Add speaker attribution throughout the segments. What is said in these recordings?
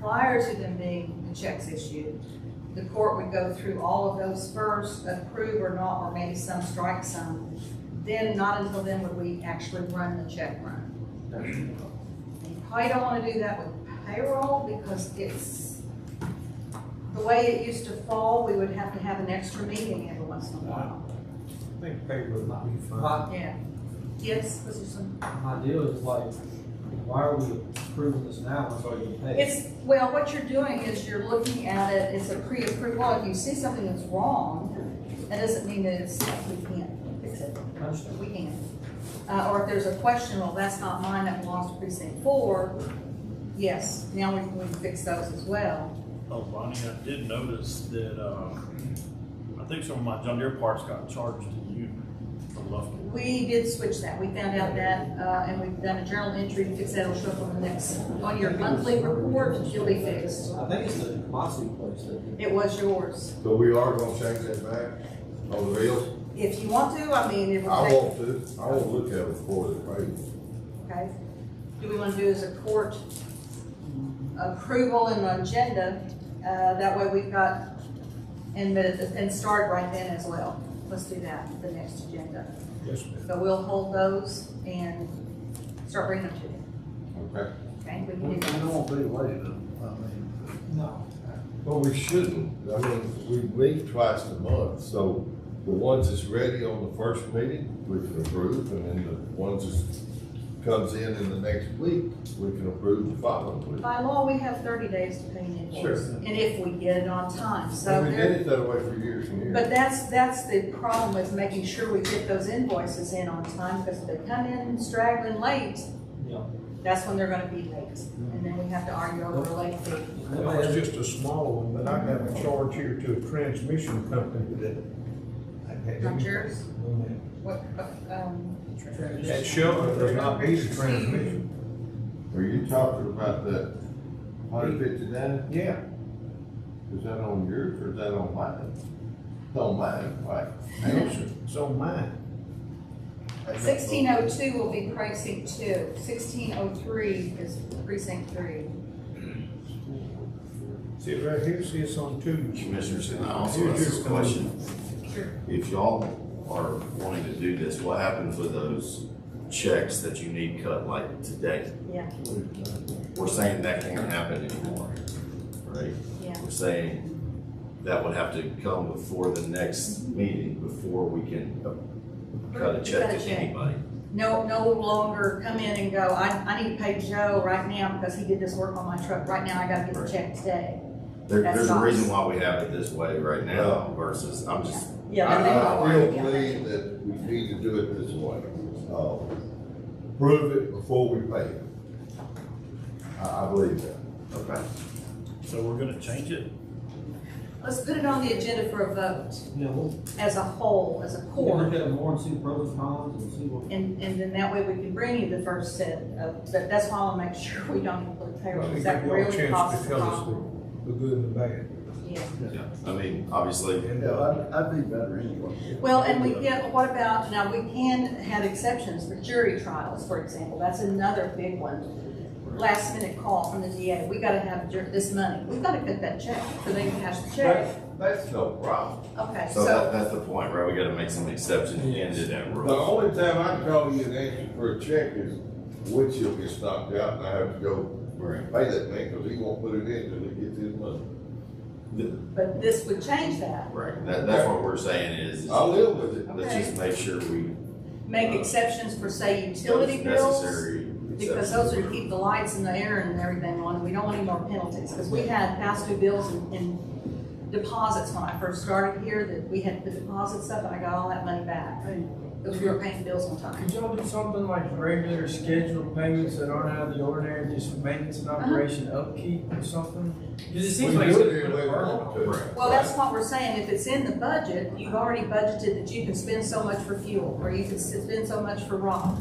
Speaker 1: Prior to them being the checks issued, the court would go through all of those first, approve or not, or maybe some strike some. Then, not until then would we actually run the check run. And You probably don't wanna do that with payroll because it's, the way it used to fall, we would have to have an extra meeting every once in a while.
Speaker 2: I think payroll might be fine.
Speaker 1: Yeah. Yes, this is some.
Speaker 2: My deal is like, why are we approving this now, it's already been paid?
Speaker 1: It's, well, what you're doing is you're looking at it, it's a pre-approval, if you see something that's wrong, that doesn't mean that it's, we can't fix it,
Speaker 2: I understand.
Speaker 1: we can. Uh, or if there's a question, well, that's not mine, that belongs to precinct four, yes, now we we can fix those as well.
Speaker 3: Oh, Bonnie, I did notice that, uh, I think some of my John Deere parts got charged to you from Lufkin.
Speaker 1: We did switch that, we found out that, uh, and we've done a journal entry to fix that, it'll show up on the next, on your monthly report, you'll be fixed.
Speaker 2: I think it's the Mossy place that.
Speaker 1: It was yours,
Speaker 4: So we are gonna change that back on the bills?
Speaker 1: if you want to, I mean, it
Speaker 4: I
Speaker 1: will. take-
Speaker 4: want to, I want to look at it before it's paid.
Speaker 1: Okay, do we want to do as a court approval and agenda? Uh, that way we've got, and, the- and start right then as well. Let's do that, the next agenda.
Speaker 2: Yes, ma'am.
Speaker 1: So we'll hold those and start bringing them to you,
Speaker 4: Okay.
Speaker 1: okay? We
Speaker 5: We
Speaker 1: can do that.
Speaker 5: don't want to be late, though, I mean,
Speaker 2: No.
Speaker 4: Well, we shouldn't. I mean, we meet twice a month, so the ones that's ready on the first meeting, we can approve, and then the ones that comes in in the next week, we can approve the following week.
Speaker 1: By law, we have thirty days to pay an invoice,
Speaker 4: Sure.
Speaker 1: and if we get it on time, so
Speaker 4: And we
Speaker 1: there.
Speaker 4: did it that way for years and years.
Speaker 1: But that's, that's the problem with making sure we get those invoices in on time, because if they come in straggling late,
Speaker 2: Yeah.
Speaker 1: that's when they're gonna be late, and then we have to argue over a late fee.
Speaker 6: That was just a small one, but I have a charge here to a transmission company that.
Speaker 1: Not yours?
Speaker 6: That
Speaker 1: What, uh, um,
Speaker 6: Shelton does not need a transmission.
Speaker 4: Are you talking about that hundred fifty-nine?
Speaker 6: Yeah,
Speaker 4: Is that on yours or is that on mine? It's on mine, right? Answer.
Speaker 6: it's on mine.
Speaker 1: sixteen oh two will be precinct two, sixteen oh three is precinct three.
Speaker 6: See it right here, see it's on two.
Speaker 7: Commissioners, and I also have a question.
Speaker 1: Sure.
Speaker 7: If y'all are wanting to do this, what happens with those checks that you need cut like today?
Speaker 1: Yeah,
Speaker 7: We're saying that can't happen anymore, right?
Speaker 1: yeah.
Speaker 7: We're saying that would have to come before the next meeting, before we can uh, cut a check
Speaker 1: Cut a
Speaker 7: to
Speaker 1: check.
Speaker 7: anybody.
Speaker 1: No, no longer come in and go, I, I need to pay Joe right now because he did this work on my truck, right now I gotta get the check today.
Speaker 7: There,
Speaker 1: That's
Speaker 7: there's a
Speaker 1: not-
Speaker 7: reason why we have it this way right now versus, I'm just,
Speaker 1: Yeah.
Speaker 4: I,
Speaker 1: but they
Speaker 4: I
Speaker 1: don't
Speaker 4: still
Speaker 1: like it.
Speaker 4: believe that we need to do it this way. Uh, Prove it before we pay it. I, I believe that.
Speaker 7: okay.
Speaker 3: So we're gonna change it?
Speaker 1: Let's put it on the agenda for a vote
Speaker 2: You know, we'll-
Speaker 1: as a whole, as a
Speaker 2: we'll look
Speaker 1: core.
Speaker 2: at it more and see the pros and cons and see what.
Speaker 1: And, and then that way we can bring you the first set of, but that's why I wanna make sure we don't include payroll,
Speaker 6: Give
Speaker 1: because
Speaker 6: you
Speaker 1: that
Speaker 6: all a
Speaker 1: really
Speaker 6: chance
Speaker 1: causes
Speaker 6: to
Speaker 1: a
Speaker 6: tell us
Speaker 1: problem.
Speaker 6: the, the good and the bad.
Speaker 1: Yeah.
Speaker 7: Yeah, I mean, obviously,
Speaker 5: I'd, I'd be better anyway.
Speaker 1: Well, and we get, what about, now, we can have exceptions for jury trials, for example, that's another big one. Last minute call from the DA, we gotta have jur- this money, we gotta cut that check, so they can cash the check.
Speaker 4: That's- That's no problem.
Speaker 1: Okay,
Speaker 7: so that,
Speaker 1: so,
Speaker 7: that's the point, right? We gotta make some exceptions into that
Speaker 4: The
Speaker 7: rule.
Speaker 4: only time I call you and ask you for a check is windshield gets knocked out and I have to go
Speaker 7: Right.
Speaker 4: pay that man because he won't put it in until he gets his money.
Speaker 1: but this would change that,
Speaker 7: Right, that, that's what we're saying is,
Speaker 4: I
Speaker 7: let's
Speaker 4: live with it.
Speaker 7: just make sure we.
Speaker 1: make exceptions for, say, utility bills.
Speaker 7: Uh, Necessary
Speaker 1: Because those are to keep the lights and the air and everything on, we don't want any more penalties, because we had past due bills and, and deposits when I first started here, that we had the deposits up, and I got all that money back, because we were paying bills on time.
Speaker 8: Could y'all do something like regular scheduled payments that aren't out of the ordinary, just maintenance and operation upkeep or something? Cause it
Speaker 4: We
Speaker 8: seems
Speaker 4: do
Speaker 8: like. it's
Speaker 4: it
Speaker 8: a
Speaker 4: anyway we want to.
Speaker 7: Right.
Speaker 1: Well, that's what we're saying, if it's in the budget, you've already budgeted that you can spend so much for fuel, or you can spend so much for rock.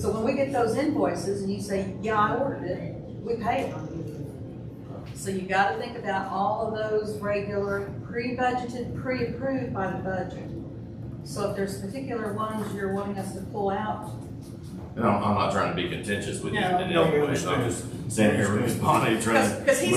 Speaker 1: So when we get those invoices and you say, yeah, I ordered it, we pay it. So you gotta think about all of those regular, pre-budgeted, pre-approved by the budget. So if there's particular ones you're wanting us to pull out,
Speaker 7: And I'm, I'm not trying to be contentious with you
Speaker 1: No.
Speaker 7: in any way, so I'm just standing here with Bonnie trying to.
Speaker 1: Because- 'cause he's